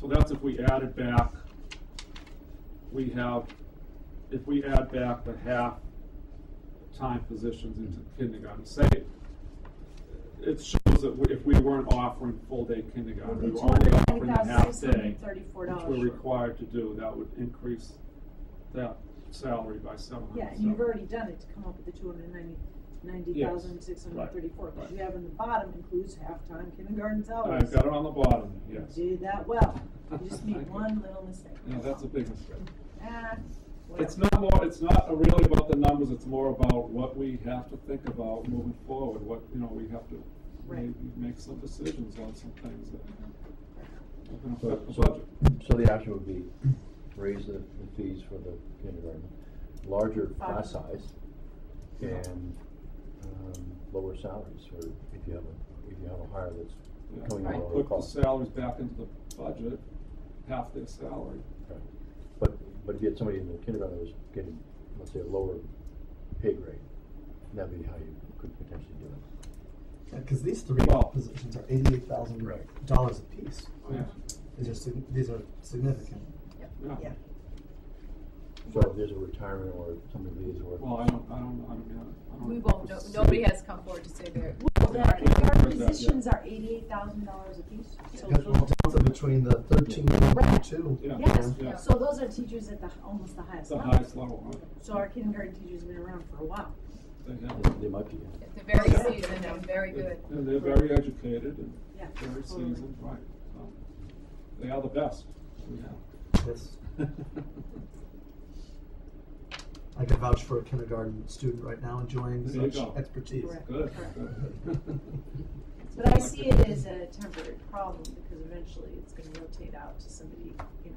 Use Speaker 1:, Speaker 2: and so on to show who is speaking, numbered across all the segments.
Speaker 1: So that's if we added back, we have, if we add back the half-time positions into kindergarten, say, it shows that we- if we weren't offering full-day kindergarten, we
Speaker 2: Would be
Speaker 1: were only offering a half-day, which
Speaker 2: $208,634
Speaker 1: we're
Speaker 2: short.
Speaker 1: required to do, that would increase that salary by seven hundred.
Speaker 2: Yeah, and you've already done it to come up with the two hundred and ninety, ninety thousand, six hundred and thirty-four,
Speaker 1: Yes, right,
Speaker 2: because you have in the bottom includes halftime kindergarten salaries.
Speaker 1: I've got it on the bottom, yes.
Speaker 2: You did that well, you just made one little mistake.
Speaker 1: Yeah, that's a big mistake.
Speaker 2: Ah,
Speaker 1: It's
Speaker 2: whatever.
Speaker 1: not more, it's not really about the numbers, it's more about what we have to think about moving forward, what, you know, we have to
Speaker 2: Right.
Speaker 1: maybe make some decisions on some things that are gonna
Speaker 3: So,
Speaker 1: affect the
Speaker 3: so,
Speaker 1: budget.
Speaker 3: so the option would be raise the, the fees for the kindergarten, larger class
Speaker 2: Five.
Speaker 3: size, and, um, lower salaries for, if you have a, if you have a hire
Speaker 1: Yeah.
Speaker 3: that's coming at a lower
Speaker 1: Put the
Speaker 3: cost.
Speaker 1: salaries back into the budget, half their salary.
Speaker 3: Right. But, but if you had somebody in the kindergarten that was getting, let's say, a lower pay grade, that'd be how you could potentially do it.
Speaker 4: Because Uh, these three
Speaker 1: Well-
Speaker 4: positions are eighty-eight thousand
Speaker 3: Right.
Speaker 4: dollars apiece.
Speaker 1: Oh, Yeah, Oh.
Speaker 4: These are sig- these are significant.
Speaker 1: yeah.
Speaker 2: Yeah,
Speaker 3: So if there's a retirement or somebody leaves or.
Speaker 1: Well, I don't, I don't, I don't, I don't.
Speaker 5: We won't, no,
Speaker 1: see-
Speaker 5: nobody has come forward to say they're.
Speaker 2: well, the,
Speaker 1: Yeah.
Speaker 2: our
Speaker 1: Yeah.
Speaker 2: positions are eighty-eight thousand dollars apiece, so
Speaker 4: Because
Speaker 2: those,
Speaker 4: the delta between the thirteen and the two.
Speaker 1: Yeah,
Speaker 2: yes,
Speaker 1: yeah,
Speaker 2: so those are teachers at the, almost the highest
Speaker 1: the
Speaker 2: level.
Speaker 1: highest level, right?
Speaker 2: So our kindergarten teachers have been around for a while.
Speaker 1: They have,
Speaker 3: They- They might be, yeah.
Speaker 5: They're very seasoned and very good.
Speaker 1: and they're very educated and
Speaker 2: Yeah,
Speaker 1: very
Speaker 2: totally.
Speaker 1: seasoned, right? So, They are the best we have.
Speaker 4: Yes. I could vouch for a kindergarten student right now enjoying
Speaker 1: There you
Speaker 4: such
Speaker 1: go.
Speaker 4: expertise.
Speaker 2: Correct.
Speaker 1: Good, good.
Speaker 2: But I see it as a temporary problem because eventually it's gonna rotate out to somebody, you know.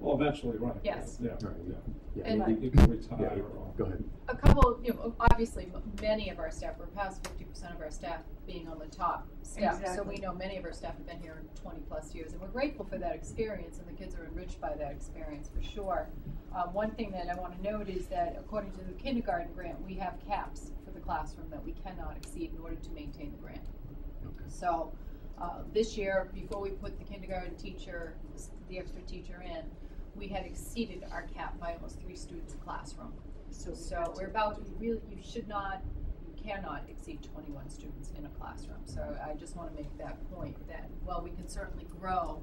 Speaker 1: Well, eventually, right.
Speaker 5: Yes.
Speaker 1: Yeah,
Speaker 3: Right,
Speaker 1: yeah.
Speaker 3: yeah.
Speaker 5: And-
Speaker 3: they-
Speaker 1: You can
Speaker 3: Yeah,
Speaker 1: retire or.
Speaker 3: go ahead.
Speaker 5: A couple, you know, obviously, m- many of our staff, we're past fifty percent of our staff being on the top staff. So
Speaker 2: Exactly.
Speaker 5: we know many of our staff have been here twenty-plus years, and we're grateful for that experience, and the kids are enriched by that experience, for sure. Um, one thing that I wanna note is that according to the kindergarten grant, we have caps for the classroom that we cannot exceed in order to maintain the grant. So, uh, this year, before we put the kindergarten teacher, the extra teacher in, we had exceeded our cap by almost three students a classroom.
Speaker 2: So we
Speaker 5: So
Speaker 2: have to-
Speaker 5: we're about, you really, you should not, you cannot exceed twenty-one students in a classroom. So I just wanna make that point, that while we can certainly grow,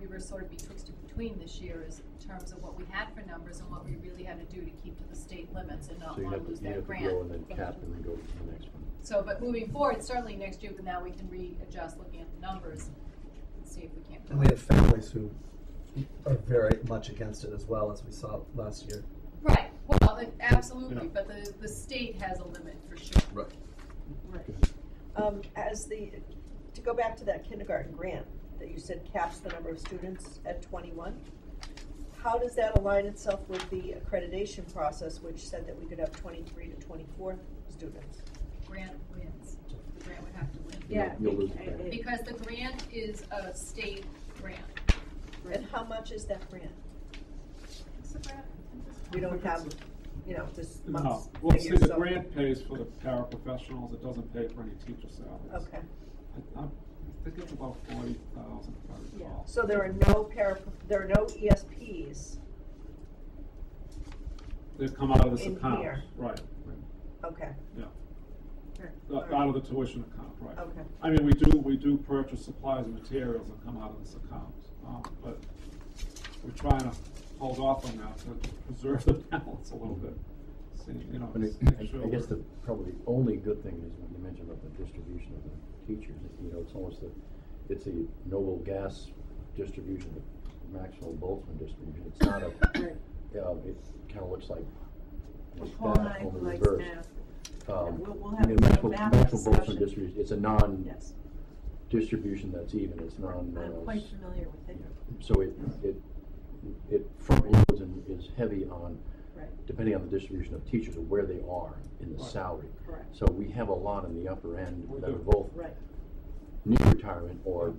Speaker 5: we were sort of betwixt and between this year is in terms of what we had for numbers and what we really had to do to keep to the state limits and not
Speaker 3: So you
Speaker 5: wanna
Speaker 3: have to,
Speaker 5: lose
Speaker 3: you
Speaker 5: that
Speaker 3: have to
Speaker 5: grant.
Speaker 3: go and then cap and then go to the next one.
Speaker 5: So, but moving forward, certainly next year, but now we can readjust looking at the numbers and see if we can't.
Speaker 4: And we have families who are very much against it as well, as we saw last year.
Speaker 5: Right, well, it-
Speaker 1: Yeah.
Speaker 5: absolutely, but the, the state has a limit for sure.
Speaker 4: Right.
Speaker 2: Right.
Speaker 6: Um, as the, to go back to that kindergarten grant that you said caps the number of students at twenty-one, how does that align itself with the accreditation process, which said that we could have twenty-three to twenty-four students?
Speaker 5: Grant wins, the grant would have to win.
Speaker 2: Yeah.
Speaker 3: You'll
Speaker 2: bec-
Speaker 3: lose the
Speaker 2: I-
Speaker 3: grant.
Speaker 5: Because the grant is a state grant.
Speaker 6: And how much is that grant?
Speaker 5: It's a grant.
Speaker 6: We don't have, you know, this
Speaker 1: No,
Speaker 6: month's
Speaker 1: well, see,
Speaker 6: figure,
Speaker 1: the
Speaker 6: so-
Speaker 1: grant pays for the paraprofessionals, it doesn't pay for any teacher salaries.
Speaker 6: Okay,
Speaker 1: I, I'm- I think it's about forty thousand, if I
Speaker 2: Yeah.
Speaker 1: recall.
Speaker 6: so there are no para, there are no E ESPs,
Speaker 1: They've come out of this
Speaker 6: In
Speaker 1: account,
Speaker 6: here.
Speaker 1: right,
Speaker 6: okay,
Speaker 1: yeah.
Speaker 2: Right.
Speaker 1: Uh, Out of the tuition account, right.
Speaker 6: okay.
Speaker 1: I mean, we do, we do purchase supplies and materials that come out of this account, um, but we're trying to hold off on that to preserve the balance a little bit. See, you know,
Speaker 3: But it-
Speaker 1: make sure
Speaker 3: I I guess
Speaker 1: we're-
Speaker 3: the, probably the only good thing is when you mentioned about the distribution of the teachers, you know, it's almost the, it's a noble gas distribution, the Maxwell Boltzmann distribution, it's not a,
Speaker 2: Right.
Speaker 3: um, it kinda looks like
Speaker 2: Well,
Speaker 3: like
Speaker 2: Paul and
Speaker 3: that,
Speaker 2: I
Speaker 3: only
Speaker 2: like
Speaker 3: reversed.
Speaker 2: math.
Speaker 3: Um,
Speaker 2: and we'll- we'll
Speaker 3: you
Speaker 2: have a
Speaker 3: know,
Speaker 2: little
Speaker 3: Maxwell-
Speaker 2: math
Speaker 3: Maxwell Boltzmann
Speaker 2: discussion.
Speaker 3: distribution, it's a non,
Speaker 2: Yes,
Speaker 3: distribution that's even, it's non,
Speaker 2: I'm
Speaker 3: uh,
Speaker 2: quite
Speaker 3: s-
Speaker 2: familiar with it,
Speaker 3: so it, it, it front loads and is heavy on,
Speaker 2: right,
Speaker 3: depending on the distribution of teachers, or where they are in the
Speaker 1: Right.
Speaker 3: salary.
Speaker 2: correct,
Speaker 3: So we have a lot in the upper end
Speaker 1: We
Speaker 3: that
Speaker 1: do.
Speaker 3: are both
Speaker 2: right,
Speaker 3: near retirement or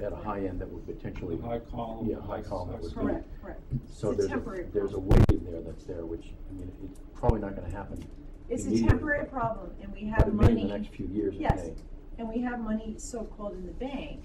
Speaker 3: at a high end that would potentially,
Speaker 1: The high column.
Speaker 3: Yeah, high column that would be-
Speaker 2: correct, correct.
Speaker 3: so
Speaker 2: It's a
Speaker 3: there's
Speaker 2: temporary
Speaker 3: a, there's a
Speaker 2: problem.
Speaker 3: wave there that's there, which, I mean, it's probably not gonna happen
Speaker 2: It's a
Speaker 3: immediately,
Speaker 2: temporary
Speaker 3: but-
Speaker 2: problem and we
Speaker 3: but
Speaker 2: have
Speaker 3: it may in the
Speaker 2: money,
Speaker 3: next few years, it
Speaker 2: Yes.
Speaker 3: may.
Speaker 2: and we have money so-called in the bank